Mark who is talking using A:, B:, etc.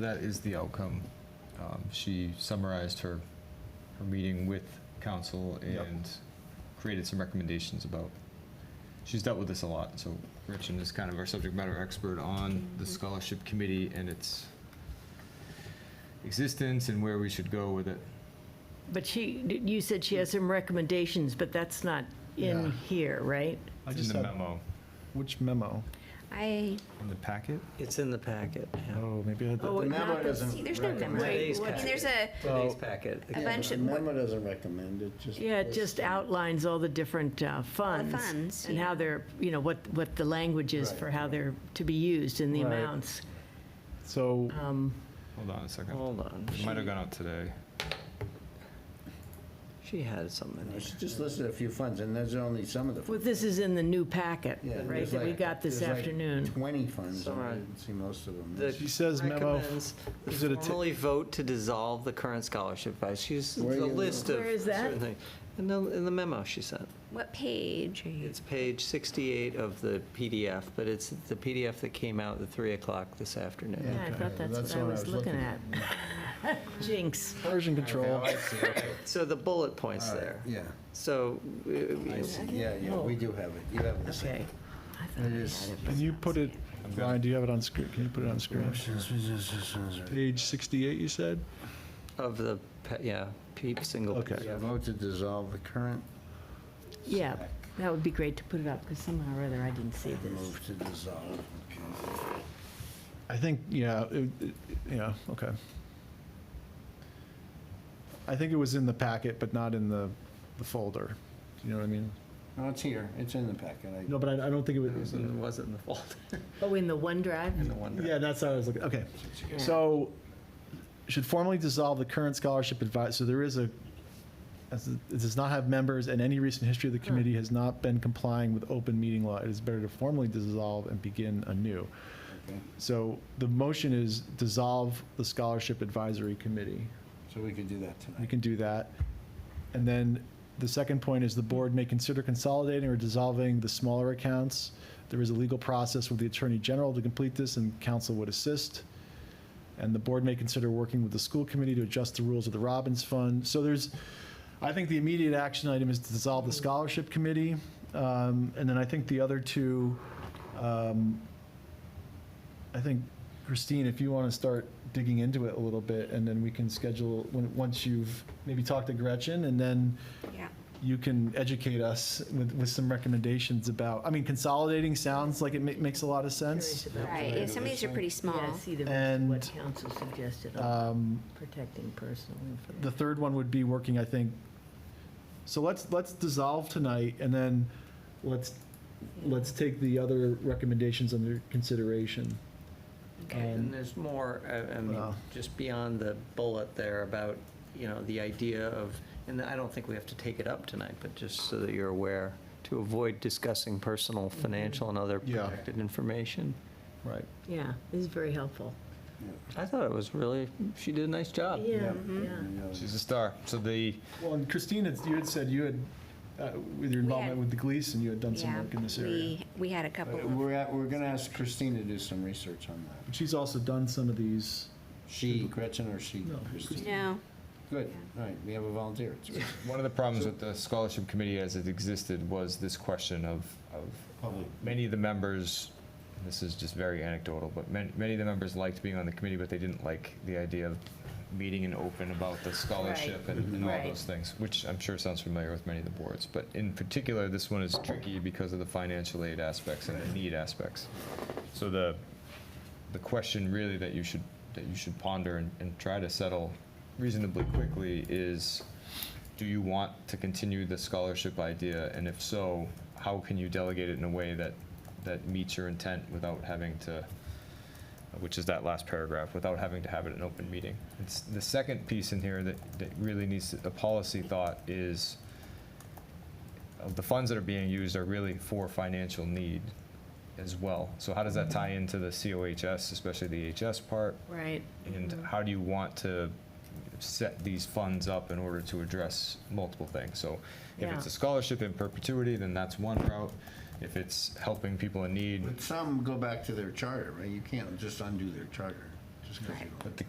A: That is the outcome. Um, She summarized her, her meeting with council
B: Yep.
A: and created some recommendations about, she's dealt with this a lot, so Gretchen is kind of our subject matter expert on the scholarship committee and its existence and where we should go with it.
C: But she, you said she has some recommendations, but that's not
B: Yeah.
C: in here, right?
B: I
A: It's
B: just
A: In the
B: had-
A: memo,
B: Which memo?
D: I,
A: in the packet?
E: It's in the packet. yeah.
B: Oh, maybe I had
C: Oh,
B: that.
C: it-
F: memo
C: not the-
F: doesn't
D: see, there's no memo.
F: recommend-
C: Wait,
E: Today's
C: what-
D: I mean,
E: packet.
D: there's a,
E: Today's
B: Well, uh,
E: packet.
D: a
F: Yeah,
D: bunch
F: the
D: of,
F: Memo doesn't recommend it, just.
C: Yeah, it just
F: lists
C: outlines all the different uh, funds.
D: funds,
C: And how
D: yeah.
C: they're, you know, what, what the language is
F: Right,
C: for how they're to be used and the
B: Right.
C: amounts.
B: So,
C: Um,
A: Hold on a second.
E: Hold on.
A: It might have gone out today.
E: She had something
F: them.
E: here.
F: It's just listed a few funds, and there's only some of the.
C: Well, this is in the new packet,
F: Yeah,
C: right,
F: there's
C: that we
F: like-
C: got this
F: there's like
C: afternoon.
F: Twenty funds, and I
E: Summarize.
F: didn't see most of them.
E: The-
F: That's-
B: she says memo,
E: Recommends
B: is it a ti-
E: formally vote to dissolve the current scholarship advice. She's the
F: Where you-
E: list of.
C: Where is that?
E: certain things. In the, in the memo she sent.
D: what page are you?
E: It's page 68 of the PDF, but it's the PDF that came out at 3 o'clock this afternoon.
C: Yeah, I
F: Okay,
C: thought that's what
F: the
C: I
F: one
C: was looking at. Jinx.
B: version control.
F: Okay, I see, okay.
E: So the bullet points
F: All right,
E: there.
F: Yeah,
E: So uh,
F: I see, yeah, yeah, we do have it, you have it.
C: Okay. I thought
F: It
C: I
F: is-
C: had it.
B: Can you put it, Ryan, do you have it on screen? Can you put it on screen? Page 68, you said?
E: of the, pa- yeah, peep single.
B: Okay.
F: Yeah, Vote to dissolve the current,
C: Yeah, that would be great to put it up, because somehow or other I didn't see this.
F: move to dissolve. okay.
B: I think, yeah, it- it- yeah, okay. I think it was in the packet, but not in the the folder. Do you know what I mean?
F: No, it's here, it's in the packet. I-
B: No, but I I don't think it
E: It
B: was,
E: wasn't wasn't in the folder,
C: Oh, in the OneDrive?
E: in the one.
B: yeah, that's how I was looking, okay.
C: Yeah.
B: So, should formally dissolve the current scholarship advice, so there is a, as it it does not have members, and any recent history of the committee has not been complying with open meeting law. It is better to formally dissolve and begin anew.
F: Okay.
B: So the motion is dissolve the scholarship advisory committee.
F: So we could do that
B: We
F: tonight.
B: can do that. And then the second point is the board may consider consolidating or dissolving the smaller accounts. There is a legal process with the Attorney General to complete this, and council would assist. And the board may consider working with the school committee to adjust the rules of the Robbins Fund. So there's, I think the immediate action item is to dissolve the scholarship committee. Um, And then I think the other two, um, I think, Christine, if you want to start digging into it a little bit, and then we can schedule, when- once you've maybe talked to Gretchen, and then
D: Yeah.
B: you can educate us with, with some recommendations about, I mean, consolidating sounds like it ma- makes a lot of sense.
D: Right, yeah, some of these are pretty
C: Yeah,
D: small.
C: see the,
B: And- um,
C: what council suggested on protecting personal
B: The
C: information.
B: third one would be working, I think, so let's, let's dissolve tonight, and then let's, let's take the other recommendations under consideration.
E: And there's more, uh, I, I mean,
B: Wow.
E: just beyond the bullet there about, you know, the idea of, and I don't think we have to take it up tonight, but just so that you're aware, to avoid discussing personal, financial, and other
B: Yeah.
E: protected information.
B: Right.
C: Yeah, this is very helpful.
E: I thought it was really, she did a nice job.
C: Yeah, yeah.
F: yeah.
A: She's a star. So the,
B: Well, and Christine, it's- you had said you had, uh, with your involvement
D: had-
B: with the Gleason, you had done some
D: Yeah,
B: work in this area.
D: we, we had a couple
F: But
D: of,
F: Uh, We're, at- we're gonna ask Christine to do some research on that.
B: She's also done some of these.
F: She, Gretchen, or she,
B: No,
F: Christine?
D: no,
F: Good, all right, we have a volunteer. It's good.
A: one of the problems with the scholarship committee as it existed was this question of, of
F: Public.
A: many of the members, this is just very anecdotal, but many, many of the members liked being on the committee, but they didn't like the idea of meeting and open about the scholarship and, and all
C: Right.
A: those things, which I'm sure sounds familiar with many of the boards. But in particular, this one is tricky because of the financial aid aspects and the need aspects. So the, the question really that you should, that you should ponder and, and try to settle reasonably quickly is, do you want to continue the scholarship idea? And if so, how can you delegate it in a way that, that meets your intent without having to, which is that last paragraph, without having to have it in open meeting? It's, the second piece in here that, that really needs a policy thought is uh, the funds that are being used are really for financial need as well. So how does that tie into the COHS, especially the HS part?
C: Right.
A: And how do you want to set these funds up in order to address multiple things? So if it's a
C: Yeah.
A: scholarship in perpetuity, then that's one route. If it's helping people in need,
F: But some go back to their charter, right? You can't just undo their charter. Just
G: just because you don't.
F: But the